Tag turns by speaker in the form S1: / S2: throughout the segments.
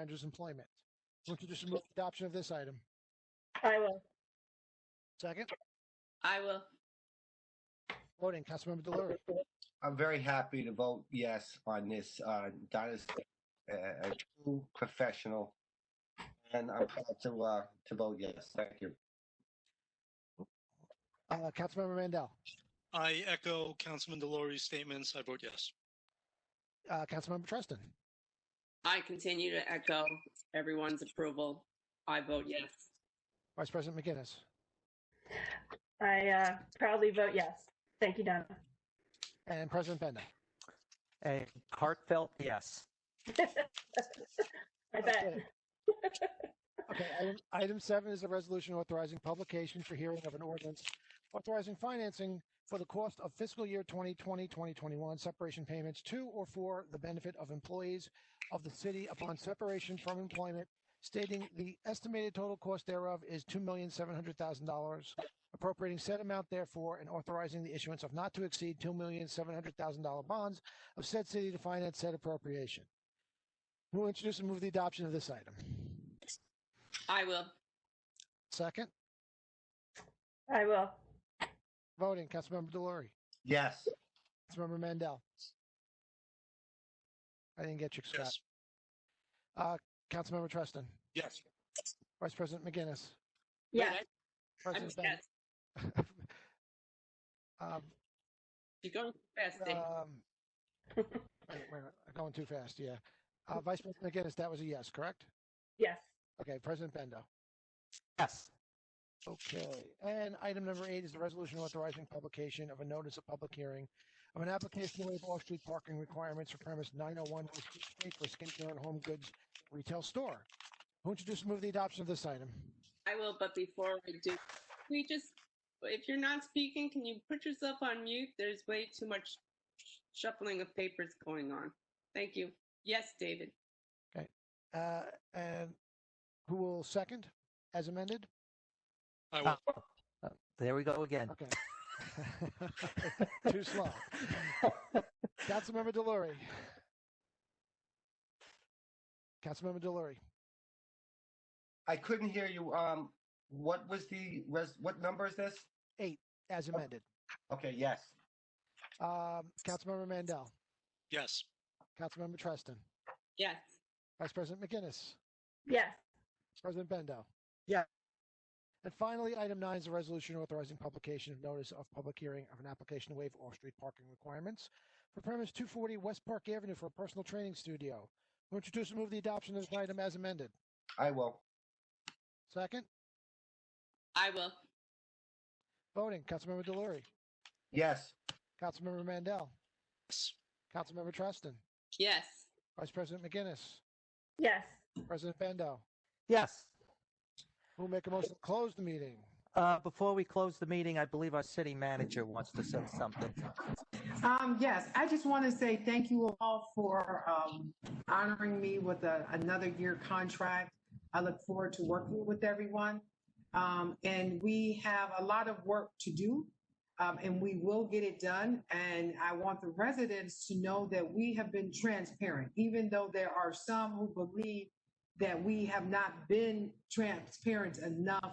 S1: manager's employment. Someone could just move adoption of this item.
S2: I will.
S1: Second,
S2: I will.
S1: voting, Councilmember Delory,
S3: I'm very happy to vote yes on this. Uh, Donna's a, a true professional, and I'm proud to uh, to vote yes. Thank you.
S1: uh, Councilmember Mandel,
S4: I echo Councilman Delory's statements. I vote yes.
S1: uh, Councilmember Tristan,
S5: I continue to echo everyone's approval. I vote yes.
S1: Vice President McGinnis,
S2: I uh, proudly vote yes. Thank you, Donna.
S1: and President Benda.
S6: A heartfelt yes.
S2: I bet.
S1: Okay. Okay, item, item seven is a resolution authorizing publication for hearing of an ordinance authorizing financing for the cost of fiscal year 2020, 2021 separation payments to or for the benefit of employees of the city upon separation from employment, stating the estimated total cost thereof is $2,700,000, appropriating said amount therefore and authorizing the issuance of not to exceed $2,700,000 bonds of said city to finance said appropriation. Who will introduce and move the adoption of this item?
S5: I will.
S1: Second?
S2: I will.
S1: Voting, Councilmember Delory,
S3: Yes,
S1: Councilmember Mandel. I didn't get you, Scott.
S4: Yes.
S1: Uh, Councilmember Tristan,
S4: Yes.
S1: Vice President McGinnis,
S2: Yes.
S5: Wait, I- I'm
S1: President Bennett.
S5: yes.
S1: Um,
S5: You're going fast, Dave.
S1: um, wait, wait, wait, I'm going too fast, yeah. Uh, Vice President McGinnis, that was a yes, correct?
S2: Yes.
S1: Okay, President Bendo.
S6: Yes.
S1: Okay, and item number eight is the resolution authorizing publication of a notice of public hearing of an application to waive off-street parking requirements for premise 901 West Beach Street for skincare and home goods retail store. Who introduced and move the adoption of this item?
S5: I will, but before I do, we just, if you're not speaking, can you put yourself on mute? There's way too much shuffling of papers going on. Thank you. Yes, David.
S1: Uh, And who will second as amended?
S4: I will.
S6: There we go again.
S1: Okay. Too slow. Councilmember Delory. Councilmember Delory,
S3: I couldn't hear you. Um, what was the res- what number is this?
S1: as amended.
S3: Okay, yes,
S1: Um, Councilmember Mandel,
S4: Yes.
S1: Councilmember Treston,
S5: Yes.
S1: Vice President McGinnis.
S2: Yes.
S1: President Bendo.
S6: Yeah.
S1: And finally, item nine is a resolution authorizing publication of notice of public hearing of an application to waive off-street parking requirements for premise 240 West Park Avenue for a personal training studio. Who introduce and move the adoption of this item as amended?
S3: I will.
S1: Second,
S5: I will.
S1: voting, Councilmember Delory,
S3: Yes,
S1: Councilmember Mandel,
S4: Yes.
S1: Councilmember Treston,
S5: Yes.
S1: Vice President McGinnis,
S2: Yes.
S1: President Bendo.
S6: Yes.
S1: Who will make a motion to close the meeting?
S6: Uh, before we close the meeting, I believe our city manager wants to say something.
S7: Um, yes, I just want to say thank you all for, um, honoring me with a, another year contract. I look forward to working with everyone. Um, and we have a lot of work to do. Um, and we will get it done. And I want the residents to know that we have been transparent, even though there are some who believe that we have not been transparent enough.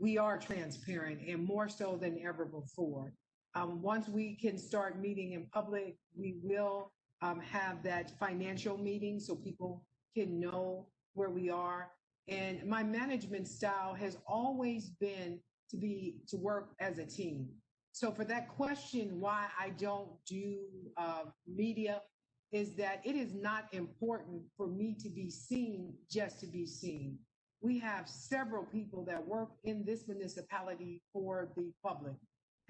S7: We are transparent and more so than ever before. Um, once we can start meeting in public, we will um, have that financial meeting so people can know where we are. And my management style has always been to be to work as a team. So for that question, why I don't do uh, media is that it is not important for me to be seen just to be seen. We have several people that work in this municipality for the public.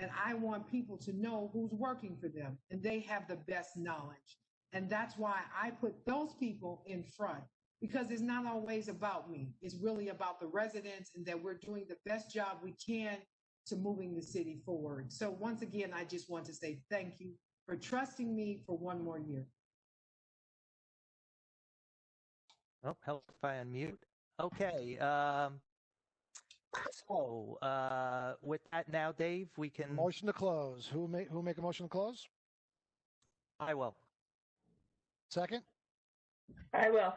S7: And I want people to know who's working for them and they have the best knowledge. And that's why I put those people in front because it's not always about me. It's really about the residents and that we're doing the best job we can to moving the city forward. So once again, I just want to say thank you for trusting me for one more year.
S6: Oh, help if I unmute. Okay. Um, so, uh, with that now, Dave, we can.
S1: Motion to close. Who will make, who will make a motion to close?
S6: I will.
S1: Second,
S2: I will.